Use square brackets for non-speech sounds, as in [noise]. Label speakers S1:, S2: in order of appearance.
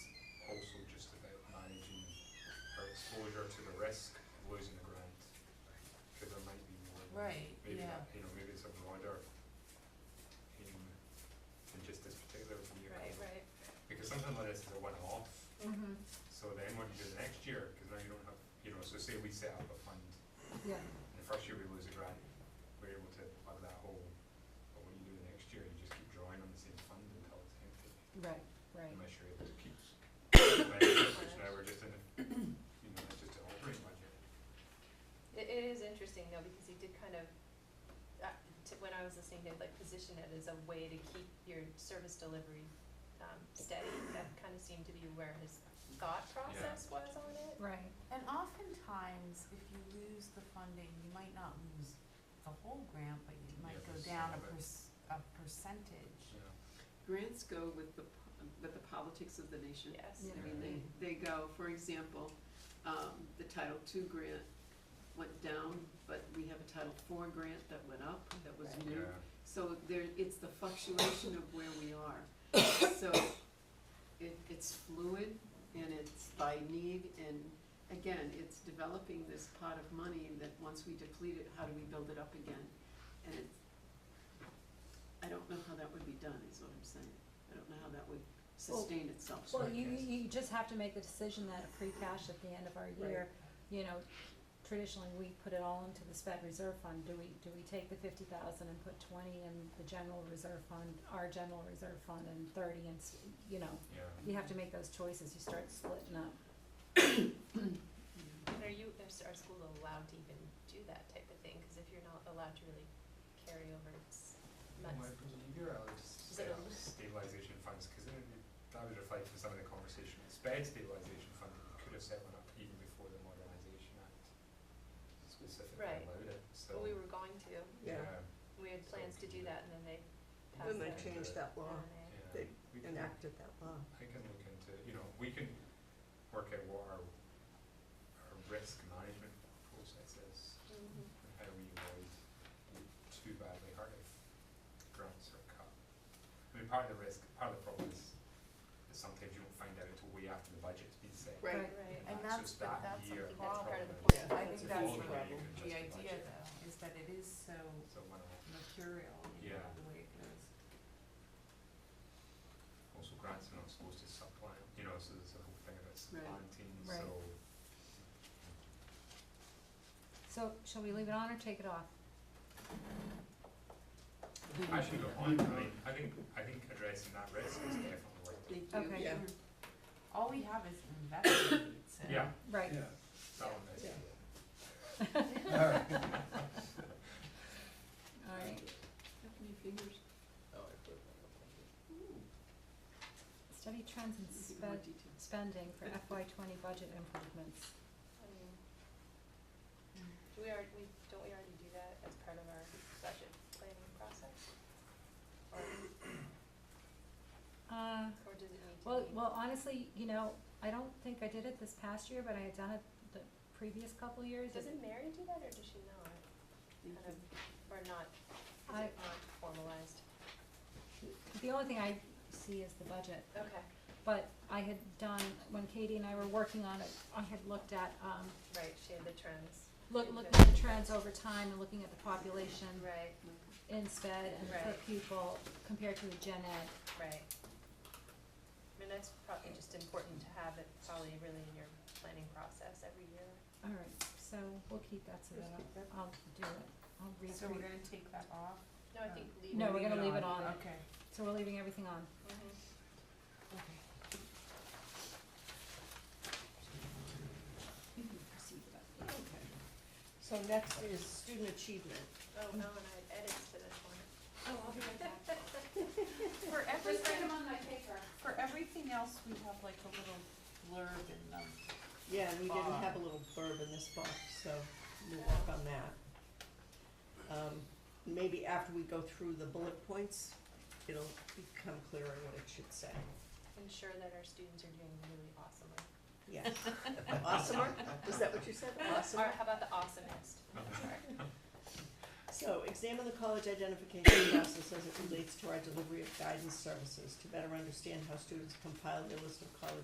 S1: sometimes letters are one-off,
S2: hmm
S1: so then what you do the next year, because now you don't have, you know, so say we set up a fund,
S2: yeah,
S1: and the first year we lose a grant, we're able to plug that hole, but when you do the next year, you just keep drawing on the same fund until it's empty,
S2: right, right.
S1: unless you're able to keep. [coughs] Which now we're just in, a- you know, it's just an operating budget.
S3: It, it is interesting though, because he did kind of, uh, to, when I was listening, they like position it as a way to keep your service delivery, um, steady. That kind of seemed to be where his thought process was on it.
S2: Right,
S4: And oftentimes, if you lose the funding, you might not lose the whole grant, but you might
S1: Yeah,
S4: go
S1: but
S4: down
S1: some of
S4: a
S1: it.
S4: pers- a percentage.
S1: Yeah.
S5: Grants go with the, po- with the politics of the nation.
S3: Yes.
S2: Yeah.
S5: I mean, they, they go, for example, um, the Title II grant went down, but we have a Title IV grant that went up, that was
S3: Right.
S5: new.
S1: Yeah.
S5: So there, it's the fluctuation of where we are. So it, it's fluid and it's by need and again, it's developing this pot of money that once we deplete it, how do we build it up again? And it's, I don't know how that would be done, is what I'm saying. I don't know how that would sustain itself.
S2: well, you, you just have to make the decision that free cash at the end of our year, you know, traditionally, we put it all into the sped reserve fund, do we, do we take the fifty thousand and put twenty in the general reserve fund, our general reserve fund, and thirty and, you know,
S1: Yeah.
S2: you have to make those choices, you start splitting up.
S3: And are you, is our school allowed to even do that type of thing? Because if you're not allowed to really carry over, it's
S1: Well, I
S3: nuts.
S1: believe you're allowed to
S3: it
S1: set
S3: a-
S1: up stabilization funds, cause then it- that was reflected in some of the conversation, sped stabilization fund, you could have set one up even before the modernization act. Specifically
S3: Right.
S1: allowed it, so.
S3: But we were going to,
S6: Yeah,
S3: we had
S1: So
S3: plans to
S1: we
S3: do
S1: did.
S3: that and then they passed
S6: then
S3: that.
S6: they changed that law,
S3: Yeah.
S1: Yeah,
S6: They
S1: we can, I
S6: enacted that law.
S1: can look into, you know, we can work out what our, our risk management process is,
S3: Mhm.
S1: and how we avoid being too badly hurt if grants are cut. I mean, part of the risk, part of the problem is, is sometimes you don't find out until way after the budget's been set.
S6: Right.
S2: Right.
S4: And
S1: that's,
S4: that's- but that's a
S1: year.
S3: problem. That's part of the
S1: problem.
S4: I think
S1: It's
S4: that's
S1: all
S4: the
S1: way you can
S4: The
S1: justify
S4: idea
S1: it.
S4: though, is that it is so
S1: So one of-
S4: mercurial, you know,
S1: Yeah.
S4: the way it goes.
S1: also grants are not supposed to supplant, you know, so there's a whole thing about
S5: Right.
S1: supplanting,
S2: Right.
S1: so.
S2: So, shall we leave it on or take it off?
S1: I should go on, I mean, I think, I think addressing that risk is definitely worth it.
S5: Thank you.
S2: Okay.
S6: Yeah.
S4: All we have is invested needs, so.
S1: Yeah,
S2: Right,
S1: that one is.
S6: Yeah.
S2: alright,
S5: How many fingers? Ooh,
S2: study trends in
S5: you get more
S2: sped,
S5: details.
S2: spending for FY twenty budget improvements.
S3: I mean, do we already, we, don't we already do that as part of our budget planning process? Or,
S2: Uh,
S3: or does it need to be?
S2: Well, well, honestly, you know, I don't think I did it this past year, but I had done it the previous couple years.
S3: Doesn't Mary do that, or does she not?
S5: Thank
S3: Kind of,
S5: you.
S3: or not, is
S2: I-
S3: it not formalized?
S2: The only thing I see is the budget,
S3: Okay,
S2: but I had done, when Katie and I were working on it, I had looked at, um,
S3: right, she had the trends,
S2: look, looking at the trends over time and looking at the population
S3: right,
S2: in sped and per
S3: Right.
S2: pupil compared to the gen ed.
S3: right. I mean, that's probably just important to have it probably really in your planning process every year.
S2: All right, so we'll keep that so that
S6: Just keep that.
S2: I'll, I'll do it. I'll read
S4: So we're
S2: through.
S4: gonna take that off?
S3: No, I
S4: Uh,
S3: think leave.
S2: No, we're
S3: it.
S2: gonna leave it on.
S4: Okay,
S2: So we're leaving everything on.
S3: Mhm.
S4: okay.
S6: So next is student achievement.
S3: Oh, Ellen, I had edits to this one.
S4: Oh, I'll be right back.
S3: [laughs]
S4: For everything,
S2: on my paper.
S4: for everything else, we have like a little blurb in them.
S6: Yeah, and we didn't
S4: Bar.
S6: have a little blurb in this box, so we'll work on that. Um, maybe after we go through the bullet points, it'll become clearer what it should say.
S3: ensure that our students are doing really awesomely.
S6: Yeah. Awesomer, was that what you said?
S3: Or [laughs]
S6: Awesomer?
S3: how about the awesomest? Sorry.
S6: So examine the college identification process as it relates to our delivery of guidance services to better understand how students compile their list of college